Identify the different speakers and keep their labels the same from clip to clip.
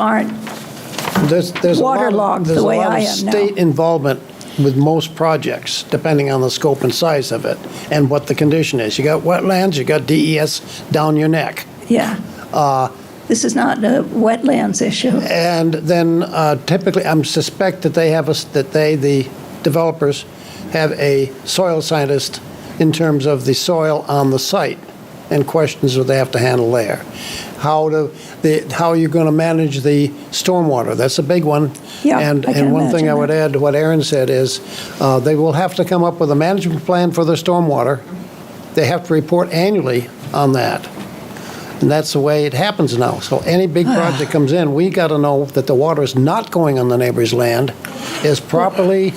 Speaker 1: aren't,
Speaker 2: There's, there's a lot
Speaker 1: Waterlogged
Speaker 2: of,
Speaker 1: the
Speaker 2: there's a
Speaker 1: way
Speaker 2: lot
Speaker 1: I
Speaker 2: of
Speaker 1: am now.
Speaker 2: state involvement with most projects, depending on the scope and size of it, and what the condition is. You got wetlands, you got DES down your neck.
Speaker 1: yeah. This is not a wetlands issue.
Speaker 2: And then uh, typically, I'm suspect that they have us, that they, the developers, have a soil scientist in terms of the soil on the site and questions that they have to handle there. How to, the, how are you going to manage the stormwater? That's a big one.
Speaker 1: Yeah,
Speaker 2: And,
Speaker 1: I can
Speaker 2: and one thing I
Speaker 1: imagine
Speaker 2: would
Speaker 1: that.
Speaker 2: add to what Aaron said is, uh, they will have to come up with a management plan for their stormwater. They have to report annually on that. And that's the way it happens now. So any big project comes in, we got to know that the water is not going on the neighbor's land, is properly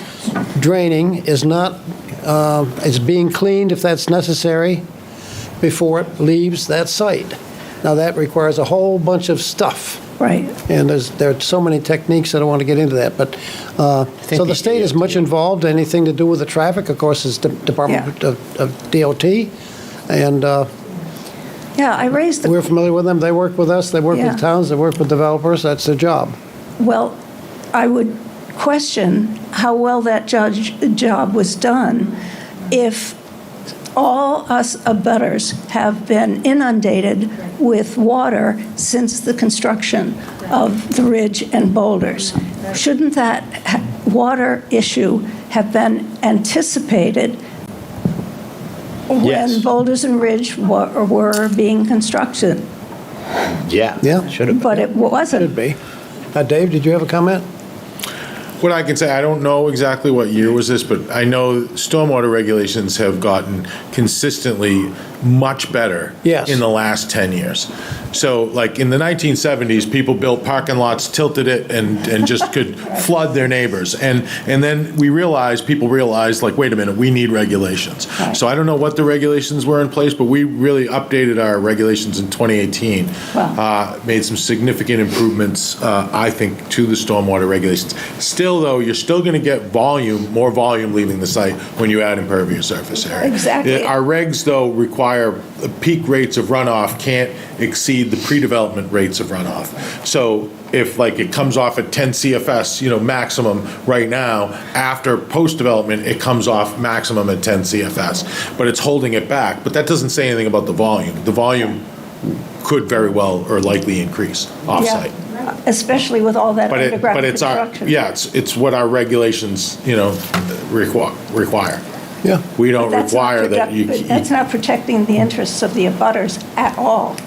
Speaker 2: draining, is not, uh, is being cleaned if that's necessary before it leaves that site. Now, that requires a whole bunch of stuff.
Speaker 1: Right.
Speaker 2: And there's, there are so many techniques, I don't want to get into that, but, uh, so the state is much involved, anything to do with the traffic, of course, is the Department
Speaker 1: Yeah.
Speaker 2: of of DOT, and uh,
Speaker 1: Yeah, I raised
Speaker 2: we're
Speaker 1: the,
Speaker 2: familiar with them, they work with us, they work
Speaker 1: Yeah.
Speaker 2: with towns, they work with developers, that's their job.
Speaker 1: well, I would question how well that judge, job was done if all us abutters have been inundated with water since the construction of the ridge and boulders. Shouldn't that ha- water issue have been anticipated
Speaker 3: Yes.
Speaker 1: when boulders and ridge were, were being constructed?
Speaker 3: Yeah.
Speaker 2: Yeah.
Speaker 3: Should have
Speaker 1: But it
Speaker 2: Should
Speaker 1: wasn't.
Speaker 2: be. Uh, Dave, did you have a comment?
Speaker 4: What I can say, I don't know exactly what year was this, but I know stormwater regulations have gotten consistently much better
Speaker 2: Yes.
Speaker 4: in the last 10 years. So like in the 1970s, people built parking lots, tilted it and, and just could flood their neighbors. And, and then we realized, people realized like, wait a minute, we need regulations. So I don't know what the regulations were in place, but we really updated our regulations in 2018.
Speaker 1: Wow.
Speaker 4: uh, made some significant improvements, uh, I think, to the stormwater regulations. Still, though, you're still going to get volume, more volume leaving the site when you add impervious surface area.
Speaker 1: Exactly.
Speaker 4: Yeah, Our regs, though, require the peak rates of runoff can't exceed the pre-development rates of runoff. So if, like, it comes off at 10 CFS, you know, maximum right now, after post-development, it comes off maximum at 10 CFS, but it's holding it back. But that doesn't say anything about the volume. The volume could very well or likely increase
Speaker 1: Yeah,
Speaker 4: offsite.
Speaker 1: Especially with all that
Speaker 4: But it,
Speaker 1: underground
Speaker 4: but it's our,
Speaker 1: construction.
Speaker 4: yeah, it's, it's what our regulations, you know, require, require.
Speaker 2: Yeah.
Speaker 4: We don't
Speaker 1: That's not
Speaker 4: require that
Speaker 1: protect-
Speaker 4: you.
Speaker 1: but That's not protecting the interests of the abutters at all.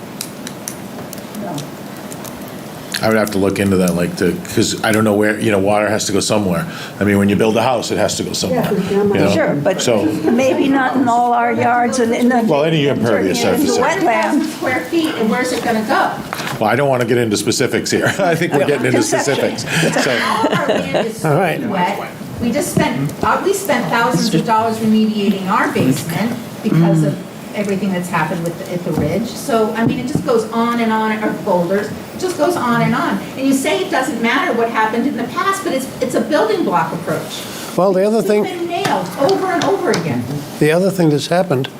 Speaker 4: I would have to look into that, like, to, because I don't know where, you know, water has to go somewhere. I mean, when you build a house, it has to go somewhere. you know?
Speaker 1: Sure, but
Speaker 4: So,
Speaker 1: maybe not in all our yards and in the.
Speaker 4: Well, any impervious
Speaker 1: in the
Speaker 4: surface area.
Speaker 1: wetland.
Speaker 5: square feet, and where's it gonna go?
Speaker 4: well, I don't want to get into specifics here. I think we're getting into
Speaker 1: Conception.
Speaker 4: specifics. So,
Speaker 5: All our land is
Speaker 2: All right.
Speaker 5: wet. We just spent, uh, we spent thousands of dollars remediating our basement because of everything that's happened with, the- at the ridge. So, I mean, it just goes on and on, or boulders, it just goes on and on. And you say it doesn't matter what happened in the past, but it's, it's a building block approach.
Speaker 2: Well, the other
Speaker 5: It's
Speaker 2: thing.
Speaker 5: been nailed over and over again.
Speaker 2: The other thing that's happened,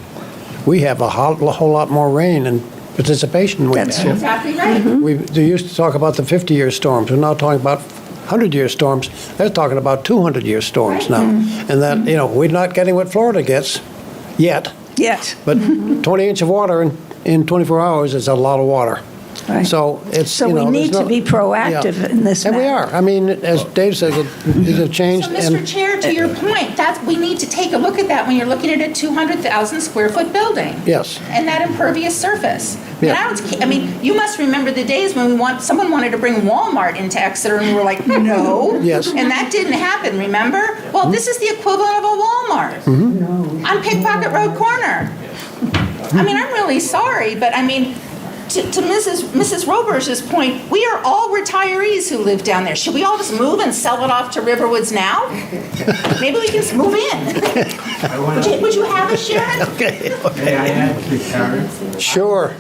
Speaker 2: we have a whole, a whole lot more rain and participation we've
Speaker 1: That's
Speaker 2: had.
Speaker 5: Exactly right.
Speaker 2: We they used to talk about the 50-year storms, we're now talking about 100-year storms. They're talking about 200-year storms
Speaker 5: Right.
Speaker 2: now.
Speaker 1: Mm-hmm.
Speaker 2: And that, you know, we're not getting what Florida gets yet,
Speaker 1: Yes.
Speaker 2: but 20 inch of water in, in 24 hours is a lot of water.
Speaker 1: Right.
Speaker 2: So it's,
Speaker 1: So
Speaker 2: you
Speaker 1: we
Speaker 2: know. there's
Speaker 1: need to
Speaker 2: no-
Speaker 1: be proactive
Speaker 2: Yeah.
Speaker 1: in this
Speaker 2: And we
Speaker 1: matter.
Speaker 2: are. I mean, as Dave says, it- these have changed.
Speaker 5: So, Mr.
Speaker 2: and-
Speaker 5: Chair, to your point, that's, we need to take a look at that when you're looking at a 200,000 square foot building.
Speaker 2: Yes.
Speaker 5: And that impervious surface. And
Speaker 2: Yeah.
Speaker 5: I don't, ca- I mean, you must remember the days when we want, someone wanted to bring Walmart into Exeter and we were like, no.
Speaker 2: Yes.
Speaker 5: And that didn't happen, remember? Well, this is the equivalent of a Walmart.
Speaker 2: Mm-hmm.
Speaker 5: On Pickpocket Road Corner. I mean, I'm really sorry, but I mean, to, to Mrs. Mrs. Roberge's point, we are all retirees who live down there. Should we all just move and sell it off to Riverwoods now? Maybe we can just move in.
Speaker 6: I want
Speaker 5: Would you,
Speaker 6: to,
Speaker 5: would you have a Sharon?
Speaker 6: may I add to Karen?
Speaker 2: Sure.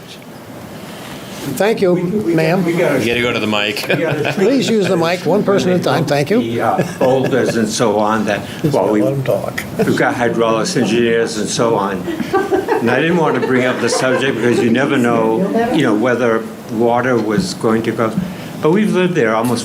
Speaker 2: Thank you,
Speaker 6: We
Speaker 2: ma'am.
Speaker 6: got
Speaker 7: You
Speaker 6: to,
Speaker 7: gotta go to the mic.
Speaker 6: we got to.
Speaker 2: Please use the mic, one person at a time, thank you.
Speaker 6: The uh, boulders and so on that, well, we,
Speaker 2: Let him talk.
Speaker 6: we've got hydraulics engineers and so on. And I didn't want to bring up the subject because you never know, you know, whether water was going to go. But we've lived there almost